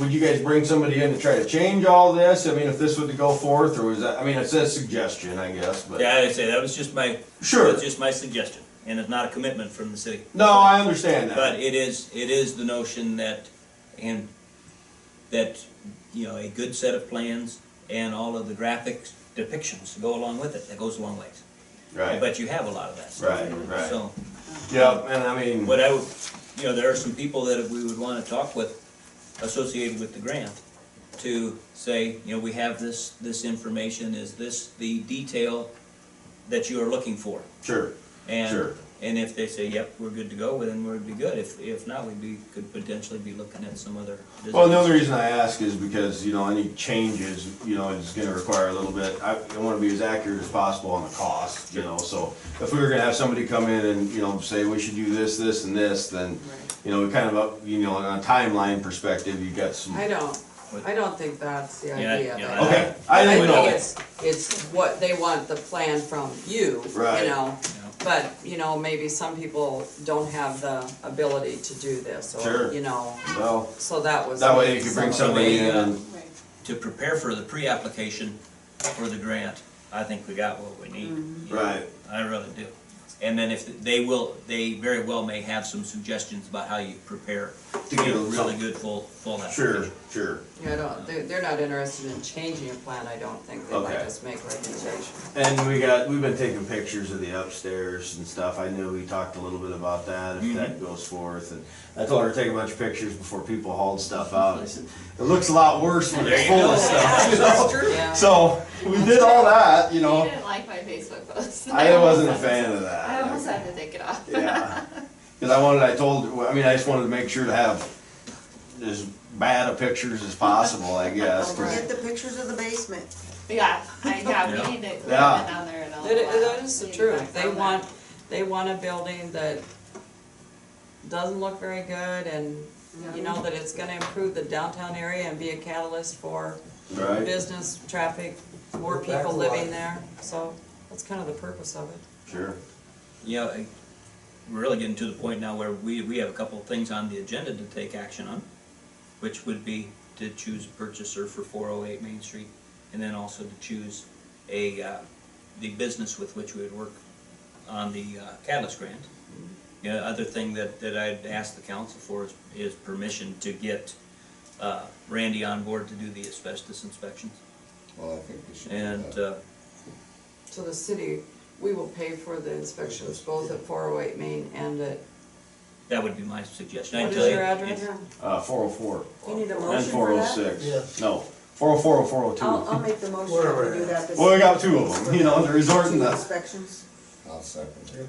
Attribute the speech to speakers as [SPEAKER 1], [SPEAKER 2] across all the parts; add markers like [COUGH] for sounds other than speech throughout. [SPEAKER 1] would you guys bring somebody in to try to change all this? I mean, if this would go forth, or was that, I mean, it's a suggestion, I guess, but.
[SPEAKER 2] Yeah, I'd say that was just my,
[SPEAKER 1] Sure.
[SPEAKER 2] that's just my suggestion, and it's not a commitment from the city.
[SPEAKER 1] No, I understand
[SPEAKER 2] But
[SPEAKER 1] that.
[SPEAKER 2] it is, it is the notion that, and, that, you know, a good set of plans and all of the graphics depictions go along with it, that goes a long ways.
[SPEAKER 1] Right,
[SPEAKER 2] But you have a lot of that stuff.
[SPEAKER 1] right, right.
[SPEAKER 2] So,
[SPEAKER 1] Yep, and I mean,
[SPEAKER 2] what I would, you know, there are some people that we would wanna talk with, associated with the grant, to say, you know, we have this, this information, is this the detail that you are looking for?
[SPEAKER 1] sure, Sure.
[SPEAKER 2] And, and if they say, yep, we're good to go, then we'd be good. If, if not, we'd be, could potentially be looking at some other business.
[SPEAKER 1] Well, the only reason I ask is because, you know, any changes, you know, is gonna require a little bit, I, I wanna be as accurate as possible on the cost, you know, so if we were gonna have somebody come in and, you know, say we should do this, this, and this, then, you know, we kind of, up you know, on a timeline perspective, you got some,
[SPEAKER 3] I don't, I don't think that's the
[SPEAKER 2] Yeah,
[SPEAKER 3] idea.
[SPEAKER 2] yeah,
[SPEAKER 3] but-
[SPEAKER 1] okay, I didn't
[SPEAKER 3] think
[SPEAKER 1] know.
[SPEAKER 3] it's, it's what they want the plan from you, you
[SPEAKER 1] Right.
[SPEAKER 3] know? But, you know, maybe some people don't have the ability to do this,
[SPEAKER 1] Sure.
[SPEAKER 3] or, you know,
[SPEAKER 1] Well,
[SPEAKER 3] so that was.
[SPEAKER 1] that way you could bring
[SPEAKER 3] some of
[SPEAKER 1] somebody in, and-
[SPEAKER 2] To prepare for the pre-application for the grant, I think we got what we need.
[SPEAKER 1] right,
[SPEAKER 2] I really do. And then if, they will, they very well may have some suggestions about how you prepare
[SPEAKER 1] To
[SPEAKER 2] to
[SPEAKER 1] get
[SPEAKER 2] get a
[SPEAKER 1] a
[SPEAKER 2] really
[SPEAKER 1] result.
[SPEAKER 2] good full, full
[SPEAKER 1] sure,
[SPEAKER 2] application.
[SPEAKER 1] sure.
[SPEAKER 3] Yeah, I don't, they're, they're not interested in changing a plan, I don't think, they might
[SPEAKER 1] Okay.
[SPEAKER 3] just make recommendations.
[SPEAKER 1] And we got, we've been taking pictures of the upstairs and stuff. I knew we talked a little bit about that, if that goes forth. And I told her to take a bunch of pictures before people hauled stuff out. I said, it looks a lot worse when it's
[SPEAKER 2] There you
[SPEAKER 1] full of
[SPEAKER 2] go.
[SPEAKER 1] stuff, you know?
[SPEAKER 3] Yeah.
[SPEAKER 1] Oh, So, we did all that, you
[SPEAKER 4] You
[SPEAKER 1] know.
[SPEAKER 4] didn't like my Facebook post.
[SPEAKER 1] I wasn't a fan of
[SPEAKER 4] I almost [LAUGHS]
[SPEAKER 1] that.
[SPEAKER 4] had to take it off.
[SPEAKER 1] Yeah. Cause I wanted, I told, I mean, I just wanted to make sure to have as bad of pictures as possible, I guess.
[SPEAKER 5] Don't
[SPEAKER 1] 'cause-
[SPEAKER 5] forget the pictures of the basement.
[SPEAKER 4] Yeah, I, yeah,
[SPEAKER 2] Yeah.
[SPEAKER 4] we need to put it
[SPEAKER 1] Yeah.
[SPEAKER 4] down there and all
[SPEAKER 3] That, i- that is the
[SPEAKER 4] Need to
[SPEAKER 3] truth,
[SPEAKER 4] back
[SPEAKER 3] they
[SPEAKER 4] down there.
[SPEAKER 3] want, they want a building that doesn't look very good and, you know, that it's gonna improve the downtown area and be a catalyst for
[SPEAKER 1] Right,
[SPEAKER 3] business, traffic, more people living there, so that's kind of the purpose of it.
[SPEAKER 1] sure.
[SPEAKER 2] You know, I- we're really getting to the point now where we, we have a couple of things on the agenda to take action on, which would be to choose a purchaser for four oh eight Main Street, and then also to choose a, uh, the business with which we would work on the uh, catalyst grant.
[SPEAKER 3] Mm-hmm.
[SPEAKER 2] You know, other thing that, that I'd ask the council for is, is permission to get, uh, Randy on board to do the asbestos inspections.
[SPEAKER 6] Well, I think we should. do
[SPEAKER 2] And,
[SPEAKER 6] that.
[SPEAKER 2] uh,
[SPEAKER 3] So the city, we will pay for the inspections, both at four oh eight Main and at,
[SPEAKER 2] that would be my suggestion. I
[SPEAKER 3] what
[SPEAKER 2] tell
[SPEAKER 3] is
[SPEAKER 2] you,
[SPEAKER 3] your
[SPEAKER 2] it's-
[SPEAKER 3] address?
[SPEAKER 1] Uh, four oh four.
[SPEAKER 5] You need a
[SPEAKER 1] And
[SPEAKER 5] motion
[SPEAKER 1] four
[SPEAKER 5] for
[SPEAKER 1] oh
[SPEAKER 5] that?
[SPEAKER 1] six, no, four oh four or four oh
[SPEAKER 5] I'll,
[SPEAKER 1] two.
[SPEAKER 5] I'll make the motion to do that. this-
[SPEAKER 1] Well, we got two of them, you know, the resort and the,
[SPEAKER 5] Inspections.
[SPEAKER 6] I'll second it.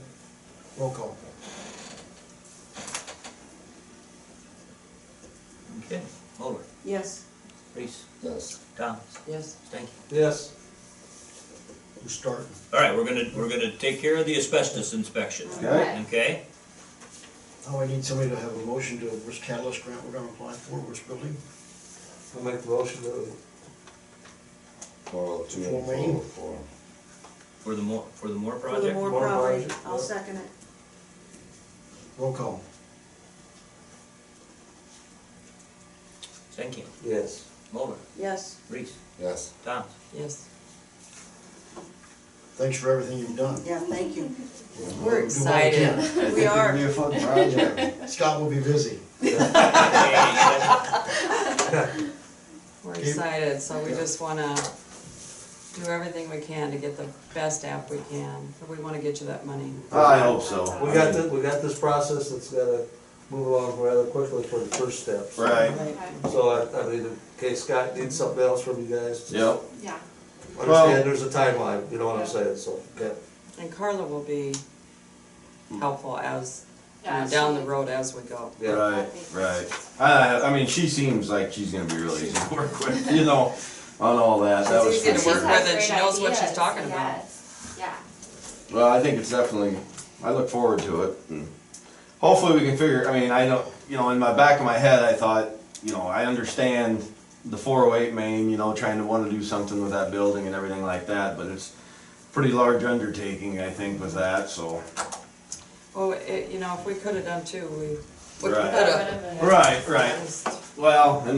[SPEAKER 7] Roll call.
[SPEAKER 2] Okay, Mulder,
[SPEAKER 5] Yes.
[SPEAKER 2] Reese,
[SPEAKER 6] Yes,
[SPEAKER 2] Thomas,
[SPEAKER 3] Yes.
[SPEAKER 2] thank you.
[SPEAKER 7] Yes. Who's starting?
[SPEAKER 2] All right, we're gonna, we're gonna take care of the asbestos inspection,
[SPEAKER 1] okay?
[SPEAKER 2] okay?
[SPEAKER 7] Now I need somebody to have a motion to which catalyst grant we're gonna apply for, which building?
[SPEAKER 8] I'll make a motion to,
[SPEAKER 6] four oh two
[SPEAKER 7] Four
[SPEAKER 6] and four
[SPEAKER 7] main.
[SPEAKER 6] oh four.
[SPEAKER 2] For the more, for the more
[SPEAKER 5] For the
[SPEAKER 2] project?
[SPEAKER 5] more
[SPEAKER 8] More
[SPEAKER 5] property,
[SPEAKER 8] project,
[SPEAKER 5] I'll
[SPEAKER 8] yeah.
[SPEAKER 5] second it.
[SPEAKER 7] Roll call.
[SPEAKER 2] Thank you.
[SPEAKER 8] yes.
[SPEAKER 2] Mulder,
[SPEAKER 5] Yes.
[SPEAKER 2] Reese,
[SPEAKER 6] Yes,
[SPEAKER 2] Thomas. [LAUGHS]
[SPEAKER 3] Yes.
[SPEAKER 7] Thanks for everything you've done.
[SPEAKER 5] Yeah, thank you.
[SPEAKER 3] We're
[SPEAKER 7] Do all we can.
[SPEAKER 3] excited.
[SPEAKER 1] I think
[SPEAKER 3] We
[SPEAKER 1] it'll
[SPEAKER 3] are.
[SPEAKER 1] Be a
[SPEAKER 3] [LAUGHS]
[SPEAKER 1] fun project.
[SPEAKER 7] Scott will be busy.
[SPEAKER 2] Okay,
[SPEAKER 3] We're
[SPEAKER 7] Okay.
[SPEAKER 3] excited, so we just wanna do everything we can to get the best app we can, but we wanna get you that money.
[SPEAKER 1] I hope so.
[SPEAKER 8] We got the, we got this process that's gotta move along rather quickly for the first steps.
[SPEAKER 1] Right,
[SPEAKER 5] Right.
[SPEAKER 8] So I, I mean, in case Scott needs something else from you guys,
[SPEAKER 1] yep,
[SPEAKER 4] Yeah,
[SPEAKER 1] Well-
[SPEAKER 8] understand there's a timeline, you know what I'm saying, so, okay.
[SPEAKER 3] And Carla will be helpful as, you know,
[SPEAKER 4] yeah.
[SPEAKER 3] down
[SPEAKER 4] she-
[SPEAKER 3] the road as we go.
[SPEAKER 8] Yeah.
[SPEAKER 1] right, right. I, I mean, she seems like she's gonna be really [LAUGHS] easy to work with, you know, on all that, that was.
[SPEAKER 3] She's easy
[SPEAKER 1] for
[SPEAKER 3] to
[SPEAKER 4] She's
[SPEAKER 3] work
[SPEAKER 1] sure.
[SPEAKER 4] got
[SPEAKER 3] with and
[SPEAKER 4] great
[SPEAKER 3] she knows what she's
[SPEAKER 4] ideas,
[SPEAKER 3] talking about.
[SPEAKER 4] yes. Yeah,
[SPEAKER 1] Well, I think it's definitely, I look forward to it. and Hopefully we can figure, I mean, I don't, you know, in my back of my head, I thought, you know, I understand the four oh eight main, you know, trying to wanna do something with that building and everything like that, but it's pretty large undertaking, I think, with that, so.
[SPEAKER 3] Well, it, you know, if we could've done two, we, we
[SPEAKER 1] Right.
[SPEAKER 3] could've.
[SPEAKER 4] Whatever.
[SPEAKER 1] Right, right. Well, and